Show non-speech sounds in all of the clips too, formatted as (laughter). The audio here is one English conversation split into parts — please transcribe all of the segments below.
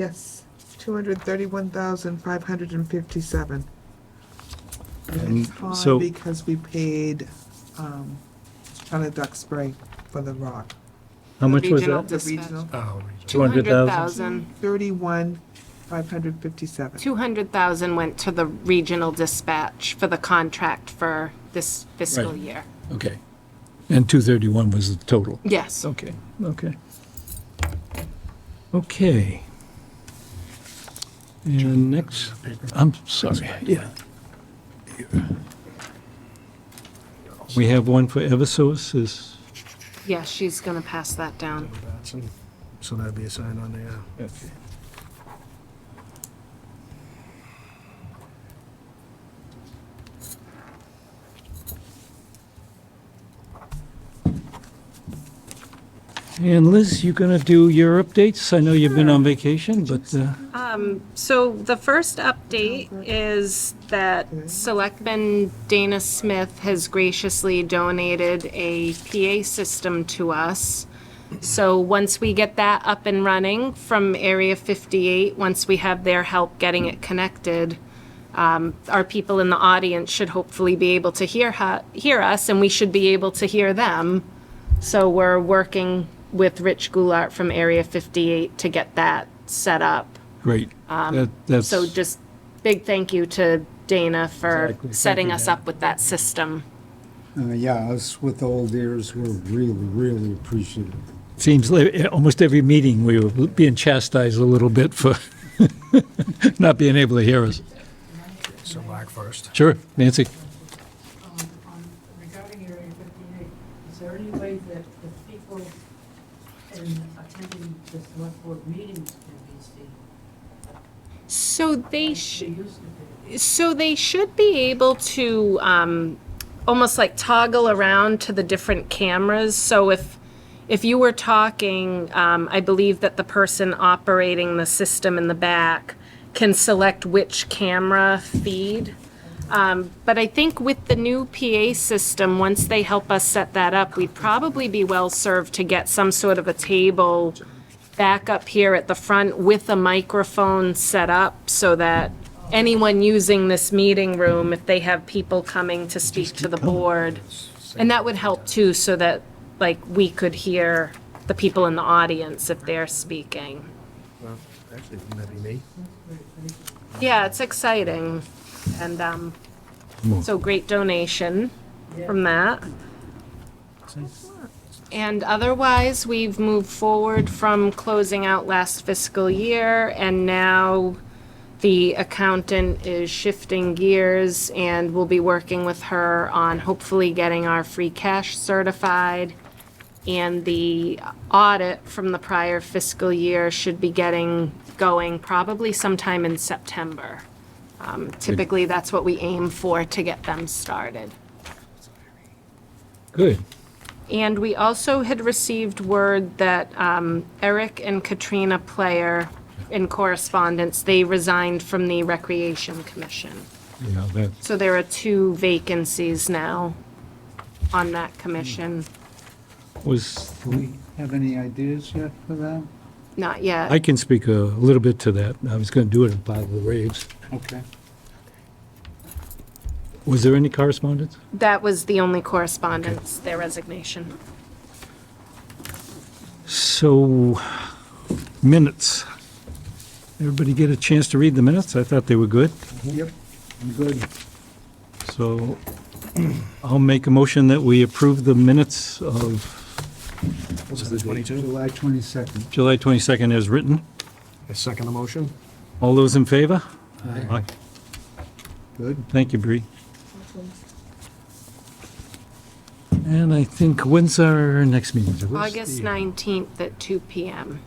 Yes, two hundred thirty-one thousand, five hundred and fifty-seven. And And it's so- odd because we paid, um, ton of duck spray for the rock. How much was Regional that? The Dispatch. regional, Oh, 200,000? 200,000. thirty-one, five hundred fifty-seven. 200,000 went to the regional dispatch for the contract for this fiscal Right. year. Okay. And 231 was the total? Yes. Okay, okay. Okay. And next, I'm sorry, yeah. We have one for Eversource, is, Yeah, she's going to pass that down. Batson. So that'd be a sign on there. and Liz, you gonna do your updates? I know you've been on vacation, but, uh, So the first update is that Selectman Dana Smith has graciously donated a PA system to us. So once we get that up and running from Area 58, once we have their help getting it connected, um, our people in the audience should hopefully be able to hear, hu- hear us, and we should be able to hear them. So we're working with Rich Goulart from Area 58 to get that set up. great. That- That's, So just big thank you to Dana for Exactly. Thank setting you, us Dana. up with that system. Uh, yeah, us with old ears, we're really, really appreciative. seems like, eh, almost every meeting, we were being chastised a little bit for (laughs) not being able to hear us. So black first. Sure, Nancy? um, on- regarding Area 58, is there any way that the people in attending the select board meetings can be seen? So they They should, used to be. so they should be able to, um, almost like toggle around to the different cameras. So if, if you were talking, um, I believe that the person operating the system in the back can select which camera feed. Um, but I think with the new PA system, once they help us set that up, we'd probably be well served to get some sort of a table back up here at the front with a microphone set up so that anyone using this meeting room, if they have people coming to speak to the board, and that would help too, so that, like, we could hear the people in the audience if they're speaking. Well, Actually, wouldn't that be me? Yeah, it's exciting. And, um, so great donation from that. And otherwise, we've moved forward from closing out last fiscal year and now the accountant is shifting gears and we'll be working with her on hopefully getting our free cash certified. And the audit from the prior fiscal year should be getting going probably sometime in September. Um, Typically, that's what we aim for to get them started. Good. And we also had received word that um, Eric and Katrina Player, in correspondence, they resigned from the Recreation Commission. Yeah, that, So there are two vacancies now on that commission. was, Do we have any ideas yet for that? Not I yet. can speak a little bit to that. I was going to do it in part of the raves. Okay. Was there any correspondence? That was the only correspondence, their resignation. So, minutes. Everybody get a chance to read the minutes? I thought they were good. Yep. I'm good. So (clears throat) I'll make a motion that we approve the minutes of Was it the 22? July 22nd. July 22nd as written. I second the motion. All those in favor? Aye. Good. Thank you, Bree. And I think, when's our next meeting? What's the- uh, August 19th at 2 PM.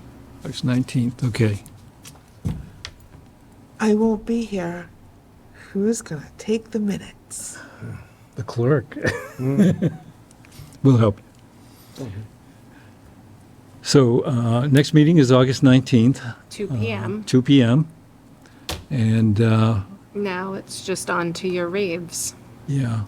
August 19th, okay. I won't be here. Who's gonna take the minutes? The clerk. We'll help. you. So, uh, next meeting is August 19th, 2 Uh-huh. PM. two PM. And, uh, Now it's just on to your raves. yeah,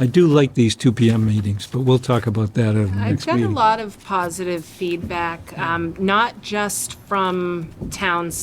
I do like these 2 PM meetings, but we'll talk about that at the I've next got a meeting. lot of positive feedback, um, not just from town